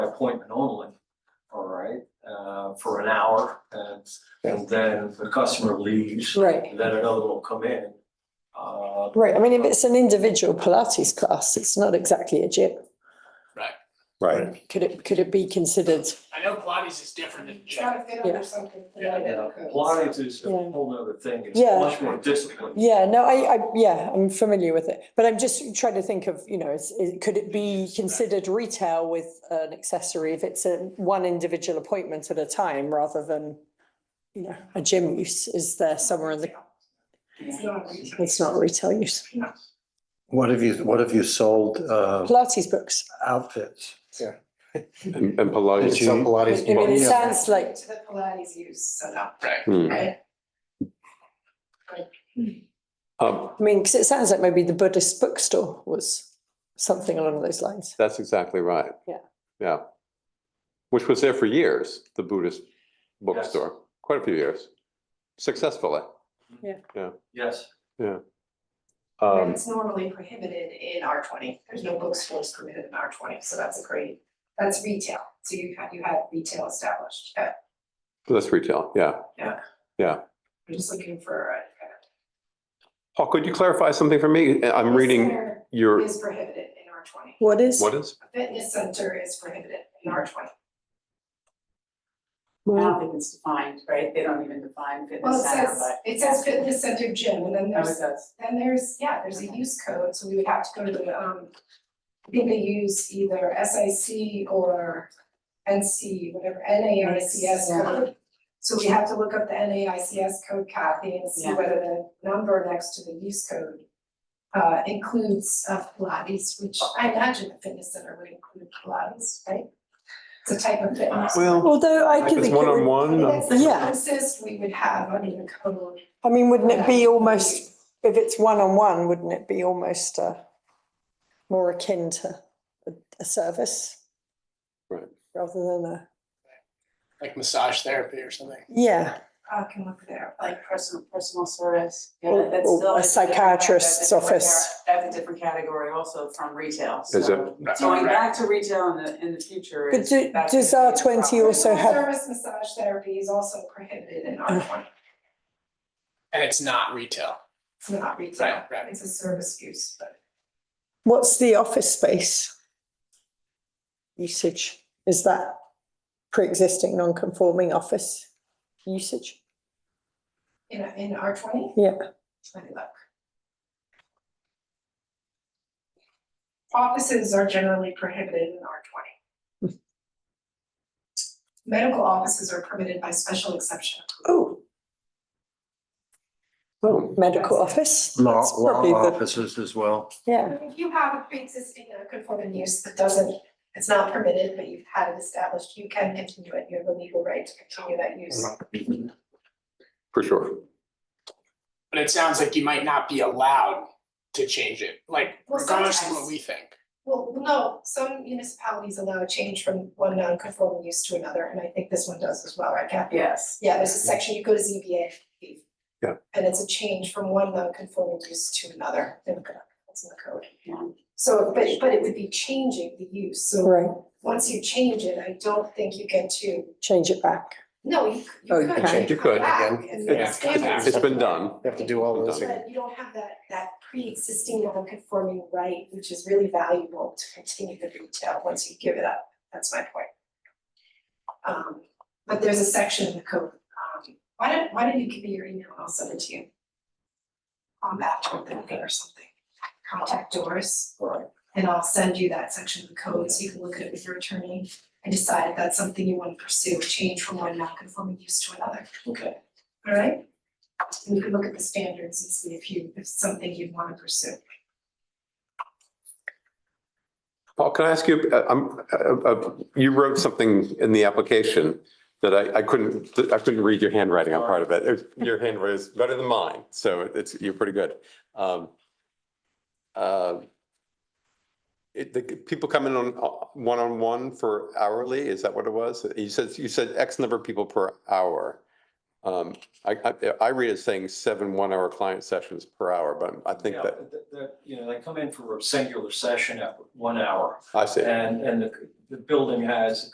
appointment only. All right, uh, for an hour and, and then if the customer leaves, Right, then another will come in. Uh, right. I mean, if it's an individual Pilates class, it's not exactly a gym. Right, Could it, could it be considered, I know Pilates is different than It's gotta gym. fit Yeah. under something. Yeah, you know, Pilates is a Yeah. whole other thing. It's Yeah. much more disciplined. yeah, no, I, I, yeah, I'm familiar with it. But I'm just trying to think of, you know, is, is, could it be considered retail with an accessory if it's a one individual appointment at a time rather than, you know, a gym use? Is there somewhere in the, It's not retail. it's not retail use. what have you, what have you sold, uh, Pilates books. outfits? And and Pilates, Did you- some I Pilates. mean, it yeah. sounds like, To the Pilates use, so no. Right. Hmm. Right. Um, I mean, because it sounds like maybe the Buddhist bookstore was something along those lines. that's exactly right. Yeah. Yeah. Which was there for years, the Buddhist bookstore, quite a few years, successfully. Yes, Um, It's normally prohibited in R twenty. There's no bookstores permitted in R twenty, so that's a great, that's retail. So you have, you have retail established. Uh, that's Um, retail, yeah. I'm just looking for a. Oh, could you clarify something for me? I'm reading Center your, Is prohibited in R twenty. What is? what is? A fitness center is prohibited in R twenty. I don't think it's defined, right? They don't even define Well, fitness it center, says, but. it says fitness center gym and then Oh, it there's says- Then there's, yeah, there's a use code, so we would have to go to the, um, I think they use either SIC or NC, whatever, NAICS Yeah. code. So we have to look up the NAICS code, Kathy, and see Yeah. whether the number next to the use code uh, includes uh, Pilates, which I imagine the fitness center would include Pilates, right? It's a type of fitness. Well, Although I could it's think, it would- I mean, one-on-one. um, That's the Yeah. closest we would have under the code. I mean, wouldn't it be almost, if it's one-on-one, wouldn't it be almost uh more akin to a, a service? Right. Rather than a, Like massage therapy or something. yeah, I can look there, like Like personal, personal service. Yeah, Or- that's or still- Oh, a that's different- psychiatrist's that's a different office. cat- That's a different category also from retail, Is it? so going back to retail in the, in the future But is. do- that's does gonna be a R20 problem. also have- Service massage therapy is also prohibited in R twenty, And it's not retail. it's not retail, Right, right. it's a service use, but. what's the office space? Usage, is that pre-existing non-conforming office usage? In in R twenty? Yeah. Let me look. Offices are generally prohibited in R twenty. Medical offices are permitted by special exception. Oh, Oh, medical office? Law, That's law probably the- offices as well. Yeah, If you have a pre-existing non-conforming use that doesn't, it's not permitted, but you've had it established, you can continue it, you have a legal right to continue that use. for sure. But it sounds like you might not be allowed to change it, like Well, regardless of what sometimes. we think. Well, no, some municipalities allow a change from one non-conforming use to another, and I think this one does as well, right, Kathy? Yes. Yeah, there's a section, you go to ZBA. Yeah. And it's a change from one non-conforming use to another, They look it up. it's in the code. Yeah. So, but, but it would be changing the use, so right, once you change it, I don't think you get to, change it back. no, you, Oh, you you could. can. You could, back again. and It's- expand it. It's been done. You have to do all those again. But you don't have that, that pre-existing non-conforming right, which is really valuable to continue the retail once you give it up, that's my point. Um, but there's a section in the code, um, why don't, why don't you give me your email, and I'll send it to you. On that or something or something, contact Doris, all right. and I'll send you that section of the code, so you can look at it with your attorney. And decide if that's something you wanna pursue, change from one non-conforming use to another. Okay. All right? And you can look at the standards and see if you, if it's something you'd wanna pursue. Paul, can I ask you, uh, um, uh, uh, you wrote something in the application that I, I couldn't, I couldn't read your handwriting on part of it. It- Your handwriting is better than mine, so it's, you're pretty good. Um, uh, It, the people come in on, uh, one-on-one for hourly, is that what it was? You said, you said X number of people per hour. Um, I, I, I read it saying seven one-hour client sessions per hour, but I think Yeah, that, th- th- you know, they come in for a singular session at one hour I see. and, and the, the building has